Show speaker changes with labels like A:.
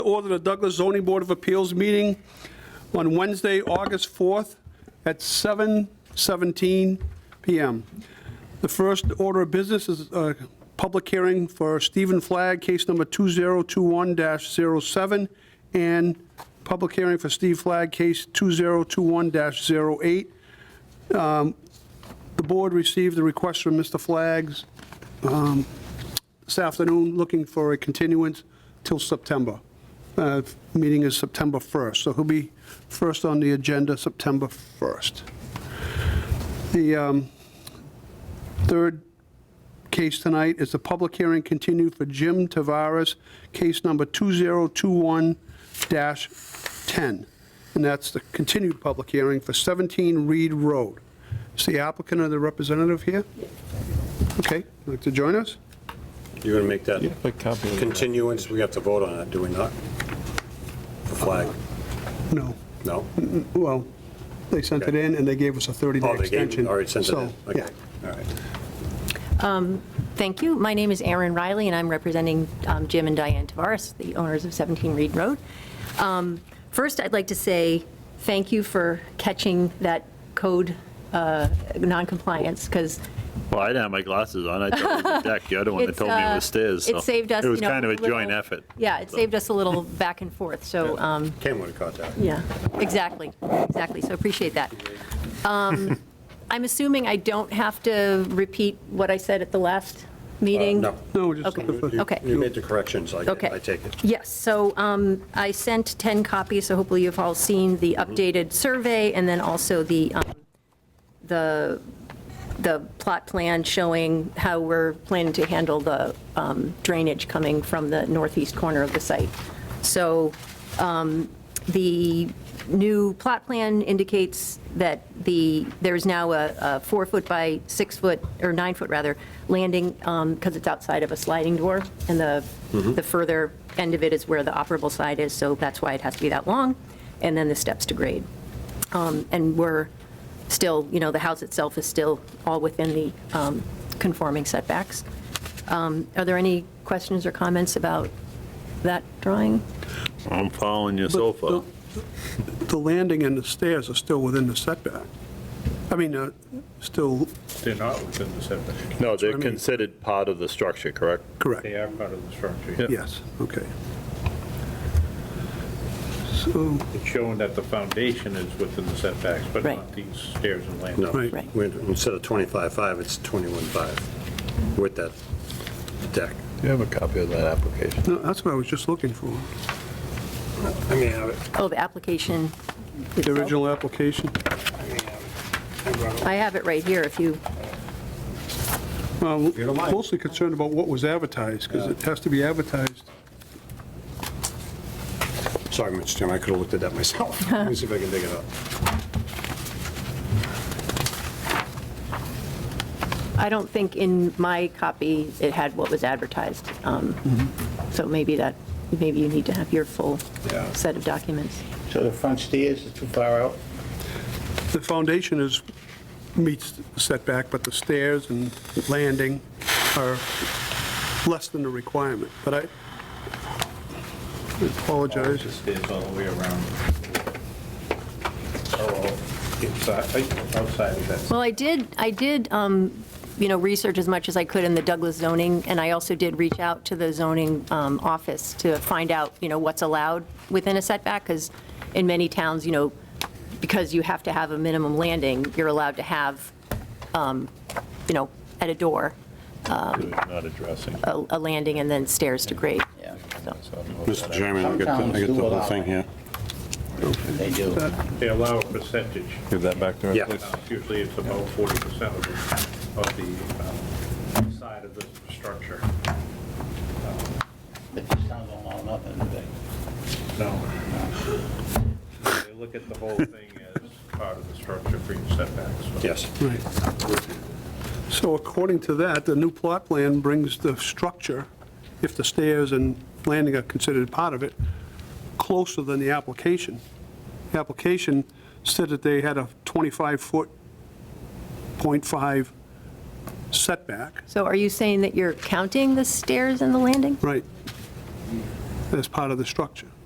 A: order the Douglas Zoning Board of Appeals meeting on Wednesday, August 4th at 7:17 PM. The first order of business is a public hearing for Stephen Flagg, case number 2021-07, and public hearing for Steve Flagg, case 2021-08. Um, The board received a request from Mr. Flagg's um, this afternoon, looking for a continuance till September. Uh, Meeting is September 1st, so he'll be first on the agenda, September 1st. The um, third case tonight is the public hearing continued for Jim Tavares, case number 2021-10. And that's the continued public hearing for 17 Reed Road. Is the applicant or the representative here? Okay, would like to join us?
B: You're going to make that
C: Like copy of that.
B: continuance, we have to vote on it, do we not? The flag,
A: No.
B: no?
A: Well, they sent it in and they gave us a 30-day
B: Oh, they gave,
A: extension.
B: all right, since it is,
A: So,
B: okay,
A: yeah.
B: all right.
D: Thank you. My name is Erin Riley, and I'm representing um, Jim and Diane Tavares, the owners of 17 Reed Road. Um, First, I'd like to say thank you for catching that code uh, noncompliance, because
E: Well, I didn't have my glasses on. I thought it was the deck. You're The other one that
D: It's,
E: told me it was
D: uh,
E: stairs.
D: it
E: so
D: saved us,
E: It was
D: you know,
E: kind of a joint
D: little-
E: effort.
D: yeah, it saved us a little back and forth, so, um,
B: Ken would have caught that.
D: yeah, exactly, exactly, so appreciate that. Um, I'm assuming I don't have to repeat what I said at the last meeting?
E: Uh,
B: No.
A: No, just
D: Okay.
A: looking for-
B: You-
D: Okay.
B: You made the corrections, I
D: Okay.
B: I take it.
D: Yes, so um, I sent 10 copies, so hopefully you've all seen the updated survey, and then also the, um, the, the plot plan showing how we're planning to handle the um, drainage coming from the northeast corner of the site. So um, the new plot plan indicates that the, there's now a a four-foot by six-foot, or nine-foot rather, landing, because it's outside of a sliding door, and the, the further end of it is where the operable side is, so that's why it has to be that long, and then the steps to grade. Um, And we're still, you know, the house itself is still all within the um, conforming setbacks. Um, Are there any questions or comments about that drawing?
E: I'm following you so far.
A: The landing and the stairs are still within the setback. I mean, uh, still
F: They're not within the setback.
E: No, they're
A: I mean.
E: considered part of the structure, correct?
A: correct.
F: They are part of the structure.
A: Yes, okay. So,
F: It's showing that the foundation is within the setbacks, but
D: Right.
F: not these stairs and
B: No.
F: landings.
A: Right.
D: Right.
B: We- Instead of 25.5, it's 21.5 with that deck.
C: Do you have a copy of that application?
A: no, that's what I was just looking for,
B: I mean, I
D: Oh, the application.
A: the original application.
D: I have it right here if you,
A: Well,
B: don't mind.
A: mostly concerned about what was advertised, because it has to be advertised.
B: Sorry, Mr. Chairman, I could have looked at that myself. Let me see if I can dig it up.
D: I don't think in my copy it had what was advertised. Um, So maybe that, maybe you need to have your full
F: Yeah.
D: set of documents.
G: So the front stairs is too far out?
A: The foundation is, meets the setback, but the stairs and landing are less than the requirement. But I I
F: The
A: apologize.
F: stairs all the way around. Oh, inside, outside of that.
D: Well, I did, I did, um, you know, research as much as I could in the Douglas zoning, and I also did reach out to the zoning um, office to find out, you know, what's allowed within a setback, because in many towns, you know, because you have to have a minimum landing, you're allowed to have, um, you know, at a door,
C: Not addressing.
D: a a landing and then stairs to grade.
G: Yeah.
D: So-
C: Mr.
G: I get the- I get the whole thing here. They do.
F: They allow a percentage.
C: Give that back to her,
B: Yeah.
C: please.
F: Usually it's about 40% of the, of the um, side of the structure. Um,
G: But this town don't allow nothing, do they?
F: No. They look at the whole thing as part of the structure for your setbacks.
B: Yes.
A: Right. So according to that, the new plot plan brings the structure, if the stairs and landing are considered part of it, closer than the application. The application said that they had a 25-foot, .5 setback.
D: So are you saying that you're counting the stairs and the landing?
A: Right. as part of the structure.